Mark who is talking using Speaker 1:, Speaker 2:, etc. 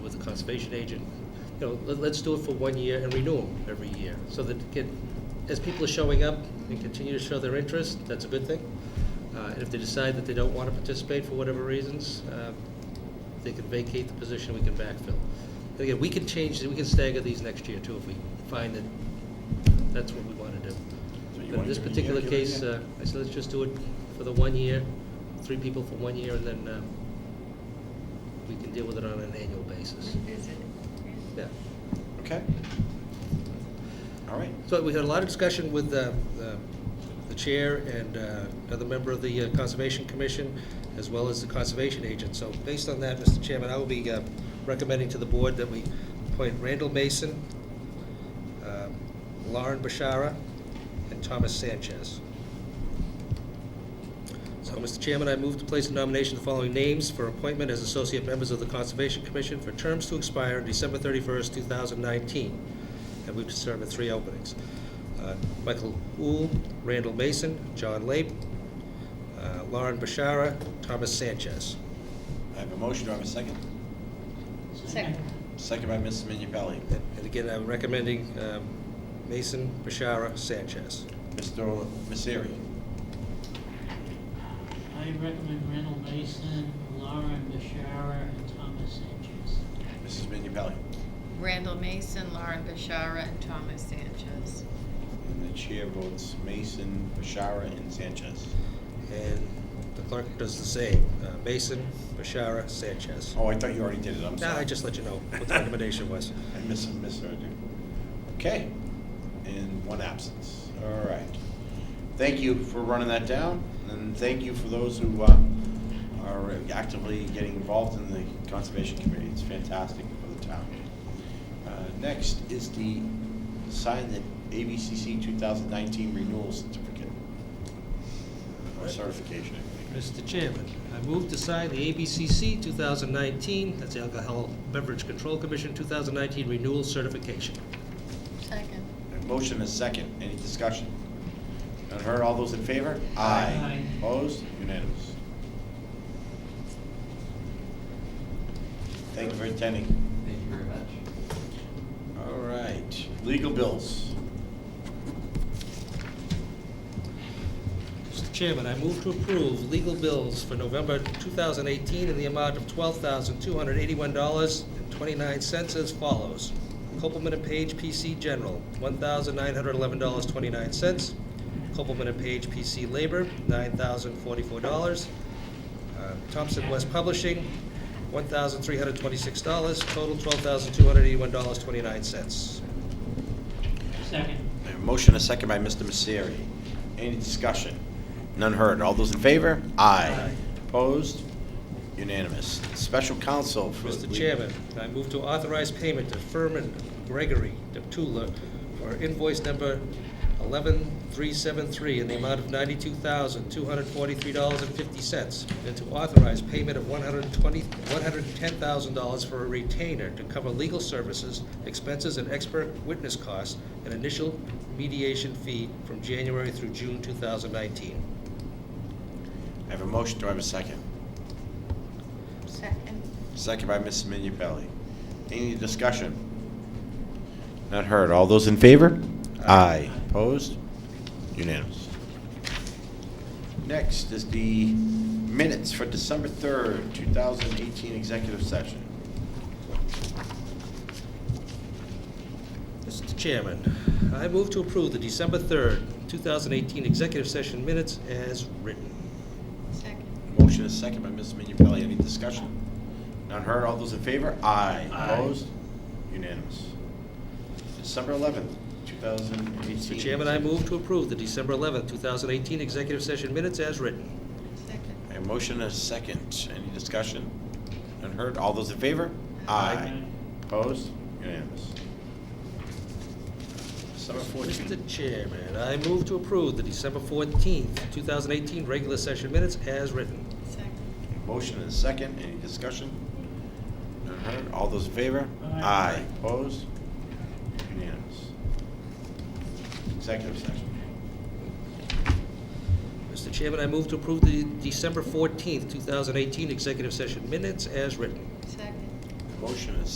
Speaker 1: conservation agent, you know, let, let's do it for one year and renew them every year, so that it can, as people are showing up and continue to show their interest, that's a good thing. Uh, and if they decide that they don't want to participate for whatever reasons, uh, they can vacate the position, we can backfill. And again, we can change, we can stagger these next year too, if we find that that's what we want to do.
Speaker 2: So you
Speaker 1: But in
Speaker 2: wanna
Speaker 1: this
Speaker 2: do a year,
Speaker 1: particular
Speaker 2: give it a
Speaker 1: case,
Speaker 2: year?
Speaker 1: uh, I said, let's just do it for the one year, three people for one year, and then uh, we can deal with it on an annual basis.
Speaker 3: Revisit it.
Speaker 1: Yeah.
Speaker 2: Okay. All right.
Speaker 1: So we had a lot of discussion with uh, the the chair and uh, another member of the uh, Conservation Commission, as well as the conservation agent. So based on that, Mr. Chairman, I will be uh, recommending to the board that we appoint Randall Mason, uh, Lauren Bashara, and Thomas Sanchez. So, Mr. Chairman, I move to place in nomination the following names for appointment as associate members of the Conservation Commission for terms to expire on December 31st, 2019. And we've determined three openings. Uh, Michael Uhl, Randall Mason, John Lape, uh, Lauren Bashara, Thomas Sanchez.
Speaker 2: I have a motion, do I have a second?
Speaker 3: Second.
Speaker 2: Second by Mrs. Minipelli.
Speaker 1: And and again, I'm recommending um, Mason, Bashara, Sanchez.
Speaker 2: Mr. Messeri.
Speaker 4: I recommend Randall Mason, Lauren Bashara, and Thomas Sanchez.
Speaker 2: Mrs. Minipelli.
Speaker 3: Randall Mason, Lauren Bashara, and Thomas Sanchez.
Speaker 2: And the chair votes Mason, Bashara, and Sanchez.
Speaker 1: And the clerk does the same, Uh, Mason, Bashara, Sanchez.
Speaker 2: Oh, I thought you already did it, I'm
Speaker 1: Now,
Speaker 2: sorry.
Speaker 1: I just let you know what the recommendation was.
Speaker 2: I miss, misheard you. Okay, and one absence, all right. Thank you for running that down, and thank you for those who uh, are actively getting involved in the Conservation Committee. It's fantastic for the town. Uh, Next is the sign that ABCC 2019 renewal certificate, or certification, I think.
Speaker 1: Mr. Chairman, I move to sign the ABCC 2019, that's the Alcohol Beverage Control Commission 2019 Renewal Certification.
Speaker 3: Second.
Speaker 2: A Motion and a second, any discussion? None heard, all those in favor?
Speaker 4: Aye.
Speaker 2: Opposed, unanimous. Thank you for attending.
Speaker 5: Thank you very much.
Speaker 2: All right, legal bills.
Speaker 1: Mr. Chairman, I move to approve legal bills for November 2018 in the amount of $12,281.29 as follows. Copeland and Page PC General, $1,911.29. Copeland and Page PC Labor, $9,044. Uh, Thompson West Publishing, $1,326. Total, $12,281.29.
Speaker 4: Second.
Speaker 2: I have a Motion and a second by Mr. Misery. Any discussion? None heard, all those in favor? Aye.
Speaker 1: Aye.
Speaker 2: Opposed, unanimous. Special counsel for.
Speaker 1: Mr.
Speaker 2: legal-
Speaker 1: Chairman, I move to authorize payment to Furman Gregory Deptula for invoice number 11373 in the amount of $92,243.50, and to authorize payment of 120 $110,000 for a retainer to cover legal services, expenses, and expert witness costs, and initial mediation fee from January through June 2019.
Speaker 2: I have a motion, do I have a second?
Speaker 3: Second.
Speaker 2: Second by Mrs. Minipelli. Any discussion? Not heard. All those in favor? Aye. Opposed? Unanimous. Next is the minutes for December 3rd, 2018 executive session.
Speaker 1: Mr. Chairman, I move to approve the December 3rd, 2018 executive session minutes as written.
Speaker 3: Second.
Speaker 2: Motion is second by Mrs. Minipelli. Any discussion? Not heard. All those in favor? Aye. Opposed? Unanimous. December 11th, 2018.
Speaker 1: Mr. Chairman, I move to approve the December 11th, 2018 executive session minutes as written.
Speaker 3: Second.
Speaker 2: A motion and a second. Any discussion? None heard? All those in favor? Aye. Opposed? Unanimous. December
Speaker 1: Mr.
Speaker 2: fourteenth.
Speaker 1: Chairman, I move to approve the December 14th, 2018 regular session minutes as written.
Speaker 3: Second.
Speaker 2: Motion and a second. Any discussion? None heard? All those in favor?
Speaker 4: Aye.
Speaker 2: Opposed? Unanimous. Executive session.
Speaker 1: Mr. Chairman, I move to approve the December 14th, 2018 executive session minutes as written.
Speaker 3: Second.
Speaker 2: Motion and a